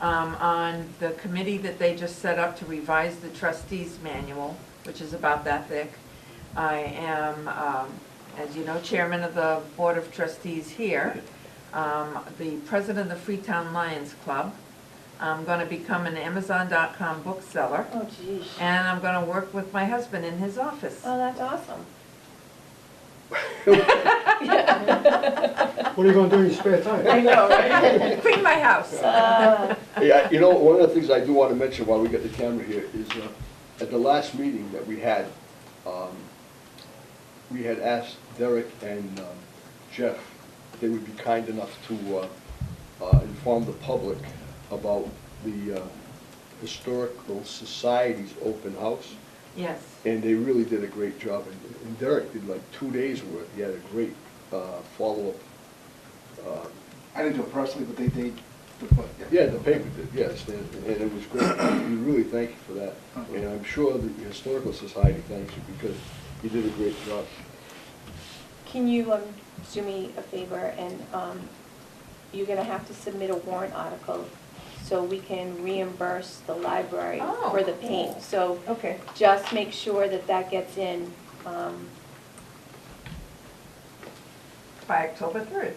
um, on the committee that they just set up to revise the trustees manual, which is about that thick. I am, um, as you know, chairman of the Board of Trustees here, um, the president of the Freetown Lions Club. I'm going to become an Amazon.com bookseller, Oh, jeez. and I'm going to work with my husband in his office. Oh, that's awesome. What are you gonna do in your spare time? know, right? Clean my house. Uh, Hey, I- you know, one of the things I do want to mention while we get the camera here is, uh, at the last meeting that we had, um, we had asked Derek and um, Jeff, if they would be kind enough to uh, uh, inform the public about the uh, Historical Society's open house, Yes. and they really did a great job. And- And Derek did like two days' worth, he had a great uh, follow-up. uh, I didn't do it personally, but they, they, the book, Yeah, the paper did, yes, and and it was great. We really thank you for that. And I'm sure the Historical Society thanks you because you did a great job. Can you um, do me a favor and um, you're going to have to submit a warrant article so we can reimburse the library Oh. for the paint. So Okay. just make sure that that gets in. um, By October 3rd.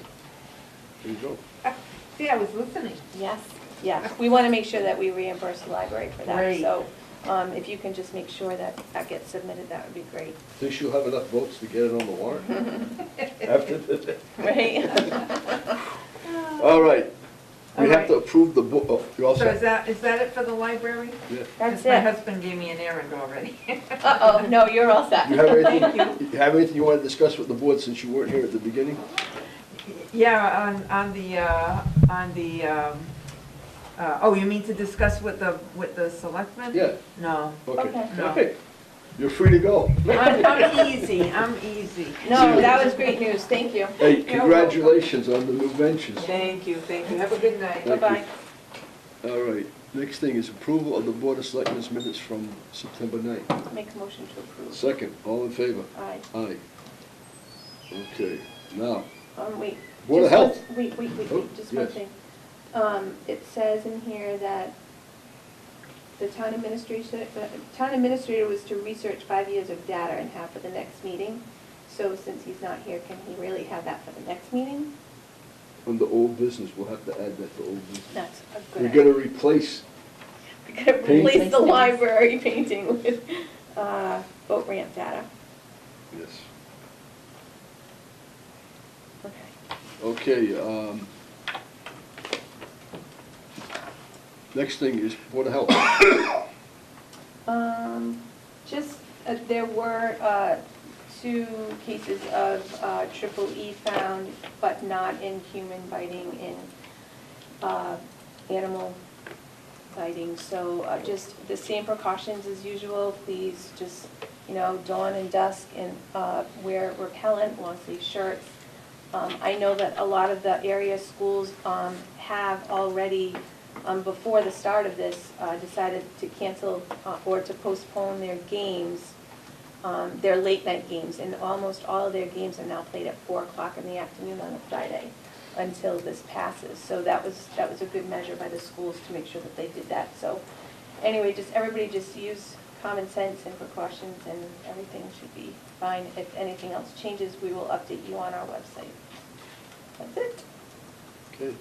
There you go. See, I was listening. Yes, yeah. We want to make sure that we reimburse the library for that. Great. So um, if you can just make sure that that gets submitted, that would be great. Think you'll have enough votes to get it on the warrant after today? Right? All right. We have to All right. approve the book, oh, you all So is set? that, is that it for the library? Yeah. That's 'Cause My it. husband gave me an errand already. Uh-oh, no, you're all set. You have Thank anything, you have anything you want to discuss with the board since you weren't here at the beginning? Yeah, on, on the, uh, on the, um, uh, oh, you mean to discuss with the, with the selectmen? Yeah. No. Okay. Okay. No. Okay. You're free to go. I'm, I'm easy, I'm easy. No, that was great news, thank you. Hey, congratulations on the new ventures. Thank you, thank you. Have a Good night. Thank you. Bye-bye. All right, next thing is approval of the Board of Selectmen's minutes from September 9th. Make a motion to approve. Second, all in favor? Aye. Aye. Okay, now, Um, wait. Board of just one- Health. Wait, wait, wait, Oh, wait, just one yes. thing. Um, it says in here that the town administration, the town administrator was to research five years of data and have for the next meeting. So since he's not here, can he really have that for the next meeting? under old business, we'll have to add that to old business. That's a We're good gonna idea. replace, We're gonna paint- replace the library painting with, uh, boat ramp data. yes. Okay. Okay, um, next thing is Board of Health. Um, just, uh, there were, uh, two cases of, uh, triple E found, but not in human biting, in, uh, animal biting. So, uh, just the same precautions as usual, please just, you know, dawn and dusk and, uh, wear repellent, long sleeve shirts. Um, I know that a lot of the area schools, um, have already, um, before the start of this, uh, decided to cancel uh, or to postpone their games, um, their late night games, and almost all of their games are now played at four o'clock in the afternoon on a Friday until this passes. So that was, that was a good measure by the schools to make sure that they did that. So anyway, just, everybody just use common sense and precautions, and everything should be fine. If anything else changes, we will update you on our website. That's it. Okay.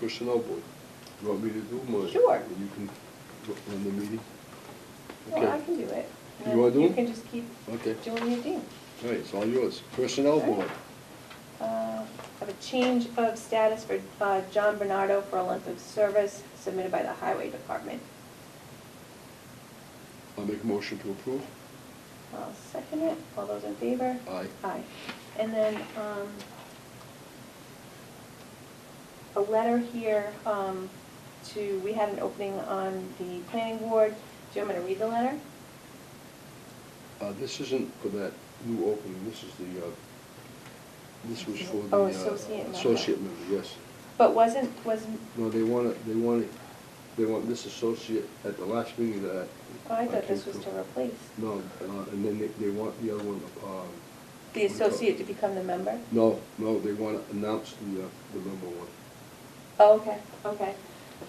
Personnel Board. You want me to do mine? Sure. And You can run the meeting? Well, I Okay, can do it. You wanna do You it? can just keep okay. doing your thing. All right, it's all yours. Personnel Board. Uh, Have a change of status for uh, John Bernardo for a length of service submitted by the Highway Department. I make a motion to approve. I'll second it. All those in favor? Aye. Aye. And then, um, a letter here, um, to, we had an opening on the planning board. Do you want me to read the letter? Uh, this isn't for that new opening, this is the, uh, this was for the. Oh, uh, associate member. Associate member, yes. But wasn't, wasn't, No, they want it, they want it, they want this associate at the last meeting that. oh, I thought came this was to through. replace No, uh, and then they, they want the other one, um. the associate to become the member? No, no, they want to announce the, uh, the number one. Oh, okay, okay.